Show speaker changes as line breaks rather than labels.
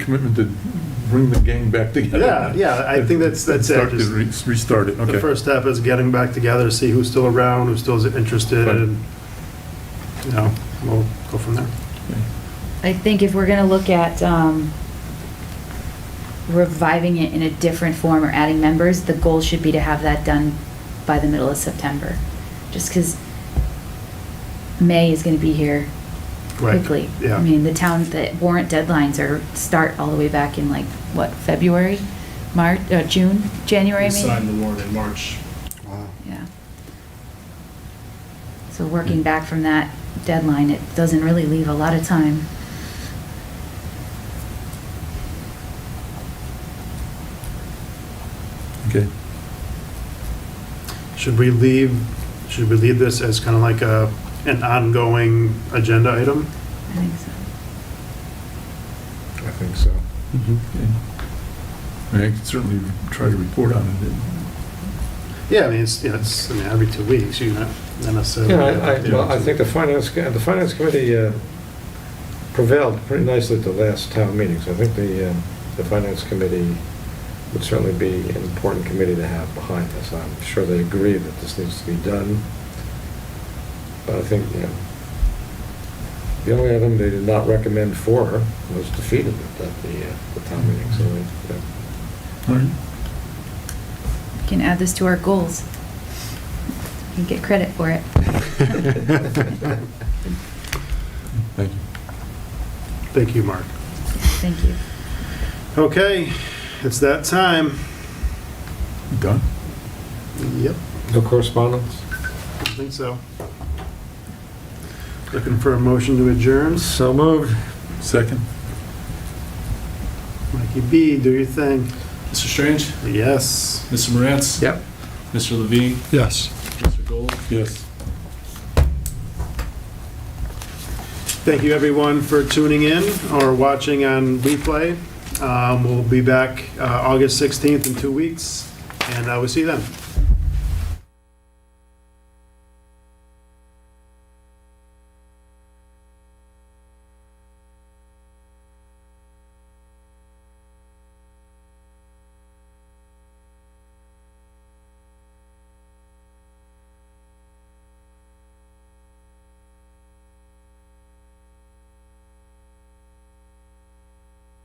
commitment to bring the gang back together.
Yeah, yeah, I think that's- that's it.
Start to re- Restart it,
The
okay.
first step is getting back together, see who's still around, who's still interested,
Right.
and, you know, we'll go from there.
I think if we're gonna look at, um, reviving it in a different form or adding members, the goal should be to have that done by the middle of September. Just cause May is gonna be here
Right,
quickly.
yeah.
I mean, the town, the warrant deadlines are, start all the way back in like, what, February? March, uh, June, January,
We
maybe?
signed the warrant in March.
Yeah. So working back from that deadline, it doesn't really leave a lot of time.
Okay.
Should we leave, should we leave this as kind of like a, an ongoing agenda item?
I think so.
I think so.
Okay. Mm-hmm, I mean, I could certainly try to report on it.
Yeah, I mean, it's, yeah, it's, I mean, every two weeks, you're not not necessarily.
Yeah, I, I, well, I think the finance, co- the finance committee uh, prevailed pretty nicely at the last town meeting, so I think the, um, the finance committee would certainly be an important committee to have behind us. I'm sure they agree that this needs to be done, but I think, you know, the only item they did not recommend for was defeated at the, uh, the town meeting, so, uh, they- they-
All right.
We can add this to our goals. And get credit for it.
Thank you.
Thank you, Mark.
Thank you.
Okay, it's that time.
Done?
Yep.
no correspondence?
I think so. Looking for a motion to adjourn.
So moved.
Second?
Mikey B, do your thing.
Mr. Strange,
Yes.
Mr. Morantz?
Yep.
Mr. Levine,
Yes.
Mr. Gold?
Yes.
Thank you, everyone, for tuning in or watching on replay. Um, We'll be back uh, August 16th in two weeks, and uh, we'll see you then.